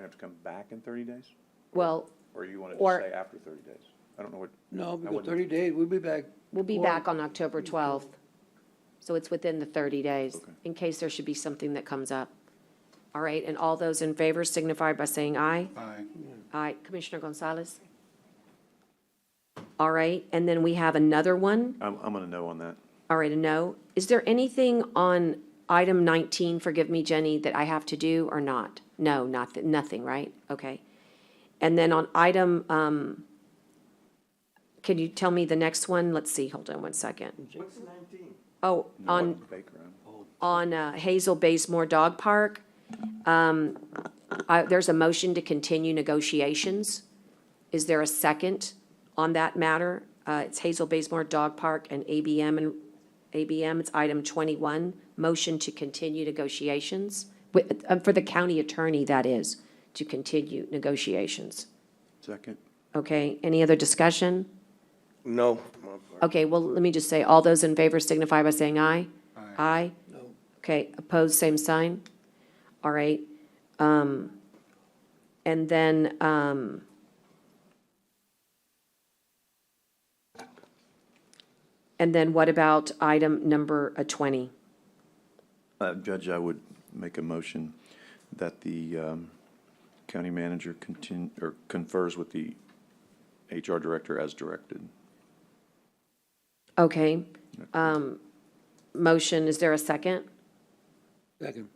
have to come back in thirty days? Well, Or you wanted to Or- say after thirty days? I don't know what, No, because wouldn't- thirty days, we'll be back. we'll be before- back on October 12th. So it's within the 30 days, Okay. in case there should be something that comes up. All right, and all those in favor signify by saying aye. Aye. Aye. Commissioner Gonzalez? All right, and then we have another one. I'm, I'm gonna know on that. All right, a no. Is there anything on item 19, forgive me, Jenny, that I have to do or not? No, not, that- nothing, right? Okay. And then on item, um, can you tell me the next one? Let's see, hold on one second. What's nineteen? Oh, No, on, Baker, I'm- on uh, Hazel Baysmore Dog Park, um, I- there's a motion to continue negotiations. Is there a second on that matter? Uh, It's Hazel Baysmore Dog Park and ABM, and ABM, it's item 21, motion to continue negotiations, with- uh, for the county attorney, that is, to continue negotiations. second. Okay, any other discussion? No. Okay, well, let me just say, all those in favor signify by saying aye. Aye? No. Okay, opposed, same sign. All right. Um, and then, um, and then what about item number uh, 20? Uh, Judge, I would make a motion that the, um, county manager contin, or confers with the HR director as directed. Okay. Um, motion, is there a second? Second.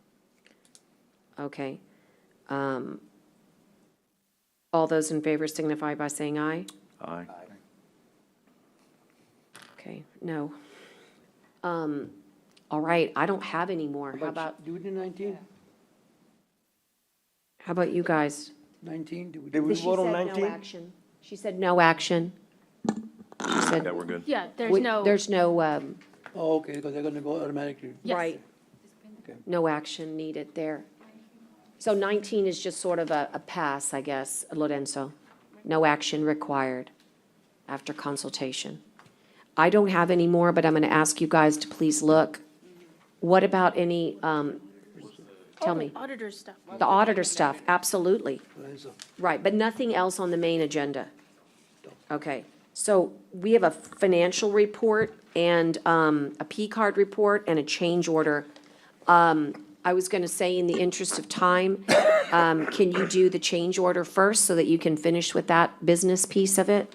Okay. Um, all those in favor signify by saying aye. Aye. Okay, no. Um, all right, I don't have any more. How about, Do we do nineteen? how about you guys? Nineteen, do we? Did we vote on nineteen? action. She said no action. She Yeah, said, we're good. Yeah, there's we- no, there's no, um, Oh, okay, because they're gonna go automatically. Yes. right, Okay. no action needed there. So 19 is just sort of a, a pass, I guess, Lorenzo. No action required after consultation. I don't have any more, but I'm going to ask you guys to please look. What about any, um, tell me, auditor stuff. the auditor stuff? Absolutely. Lorenzo. Right, but nothing else on the main agenda? Okay, so we have a financial report and um, a P-card report and a change order. Um, I was going to say, in the interest of time, um, can you do the change order first so that you can finish with that business piece of it?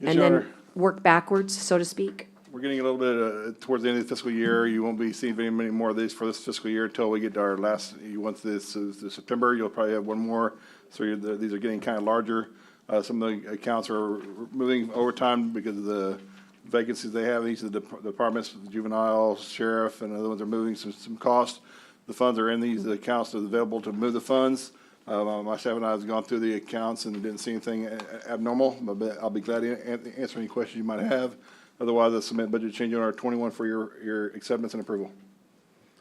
And then work backwards, so to speak? We're getting a little bit, uh, towards the end of the fiscal year, you won't be seeing very many more of these for this fiscal year until we get to our last, you- once this is this September, you'll probably have one more. So you're, the- these are getting kind of larger. Uh, some of the accounts are moving over time because of the vacancies they have, these are the dep- departments, juvenile, sheriff, and other ones are moving some, some costs. The funds are in these accounts, are available to move the funds. Uh, myself and I have gone through the accounts and didn't see anything a- a- abnormal, but I'll be glad to an- answer any questions you might have. Otherwise, I submit budget change order twenty-one for your, your acceptance and approval.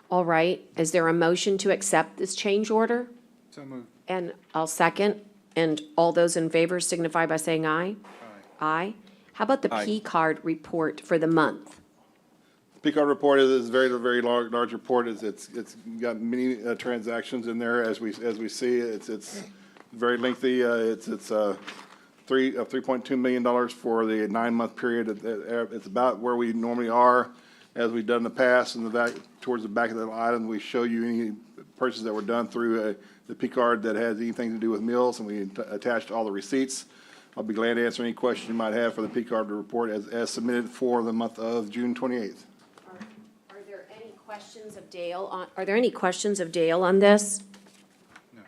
All right, is there a motion to accept this change order? So moved. And I'll second, and all those in favor signify by saying aye. Aye. How about the Aye. P-card report for the month? Picard report is, is very, very large, large report. It's, it's, it's got many uh, transactions in there as we, as we see. It's, it's very lengthy. Uh, it's, it's, uh, three, uh, three point two million dollars for the nine-month period. It- it- It's about where we normally are as we've done in the past. And the back, towards the back of that item, we show you any purchases that were done through, uh, the Picard that has anything to do with meals and we att- attached all the receipts. I'll be glad to answer any questions you might have for the Picard report as, as submitted for the month of June twenty-eighth. Are there any questions of Dale on, are there any questions of Dale on this? No.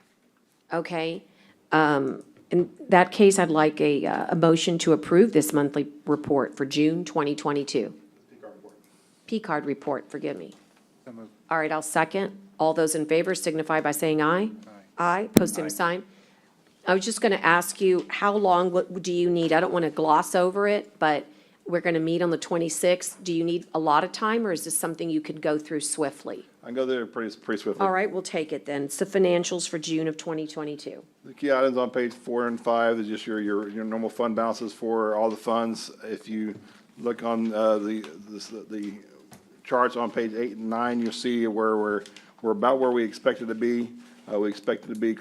Okay. Um, In that case, I'd like a, uh, a motion to approve this monthly report for June 2022. P-card report, forgive me. So moved. All right, I'll second. All those in favor signify by saying aye. Aye, post same sign. I was just going to ask you, how long what do you need? I don't want to gloss over it, but we're going to meet on the 26th. Do you need a lot of time, or is this something you could go through swiftly? I can go there pretty, pretty swiftly. All right, we'll take it then. It's the financials for June of 2022. The key items on page four and five is just your, your, your normal fund balances for all the funds. If you look on, uh, the, this- the charts on page eight and nine, you'll see where we're, we're about where we expected to be. Uh, we expected to be